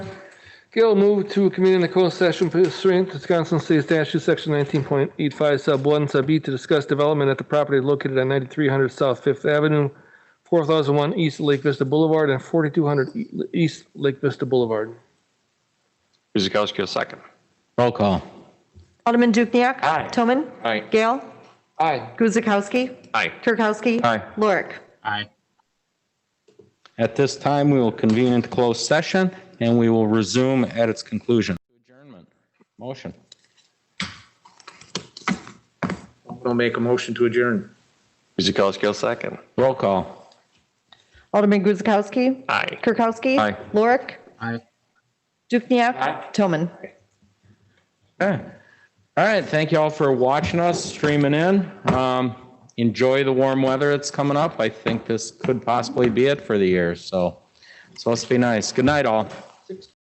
Gail moved to convene in the closed session pursuant to Wisconsin State Statute, Section 19.85, Sub 1, Sub E, to discuss development at the property located at 9300 South Fifth Avenue, 4001 East Lake Vista Boulevard, and 4200 E- East Lake Vista Boulevard. Kuzakowski, a second. Roll call. Alderman Dukniak. Aye. Toman. Aye. Gale. Aye. Guzekowski. Aye. Kirkowski. Aye. Lorik. Aye. At this time, we will convene into closed session, and we will resume at its conclusion. Adjournment. Motion. I'll make a motion to adjourn. Kuzakowski, a second. Roll call. Alderman Guzekowski. Aye. Kirkowski. Aye. Lorik. Aye. Dukniak. Toman. Okay. All right, thank you all for watching us, streaming in. Um, Enjoy the warm weather that's coming up. I think this could possibly be it for the year, so it's supposed to be nice. Good night, all.